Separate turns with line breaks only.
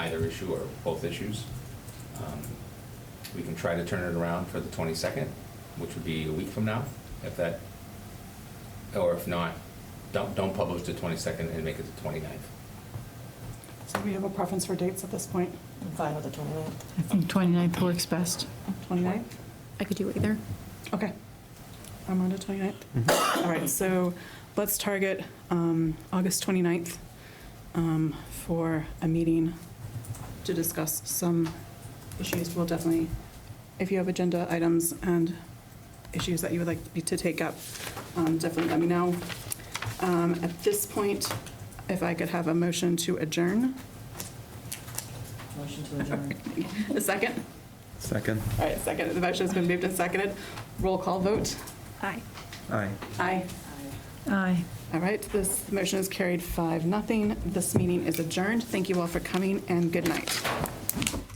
either issue or both issues. Um, We can try to turn it around for the 22nd, which would be a week from now, if that, or if not, don't, don't publish the 22nd and make it the 29th.
So we have a preference for dates at this point,
I'm fine with the 29th.
I think 29th works best.
29th?
I could do either.
Okay. I'm on to 29th. All right, so let's target um, August 29th um, for a meeting to discuss some issues. We'll definitely, if you have agenda items and issues that you would like me to take up, um, definitely let me know. Um, At this point, if I could have a motion to adjourn,
Motion to adjourn.
a second?
Second.
All right, second, the motion's been moved and seconded. Roll call vote.
Aye.
Aye.
Aye.
Aye.
Aye.
All right, this motion is carried five, nothing. This meeting is adjourned. Thank you all for coming and good night.